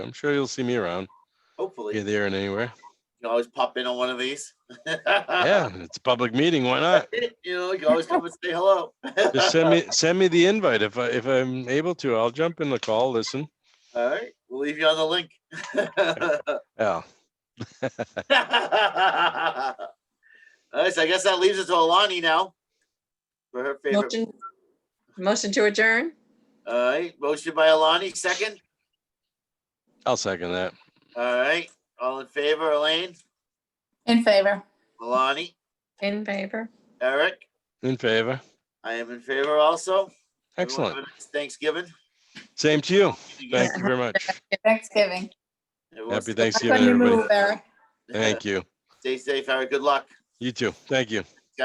I'm sure you'll see me around. Hopefully, Here, you there, and anywhere. can always pop in on one of these. Yeah, it's a public meeting. Why not? You know, you can always come and say hello. Just send me send me the invite if I if I'm able to. I'll jump in the call. Listen. All right, we'll leave you on the link. Yeah. All right, so I guess that leaves it to Alani now. For her favorite. Motion, motion to adjourn? All right, motion by Alani, second. I'll second that. All right, all in favor, Elaine, In favor. Alani, In favor? Eric? In favor. I am in favor also. Everyone have a Excellent. nice Thanksgiving. Same to you. Thank you very much. Thanksgiving. Everyone Happy stay- How Thanksgiving, can you everybody. move, Eric? Thank you. Stay safe, Eric. Good luck. You too. Thank you.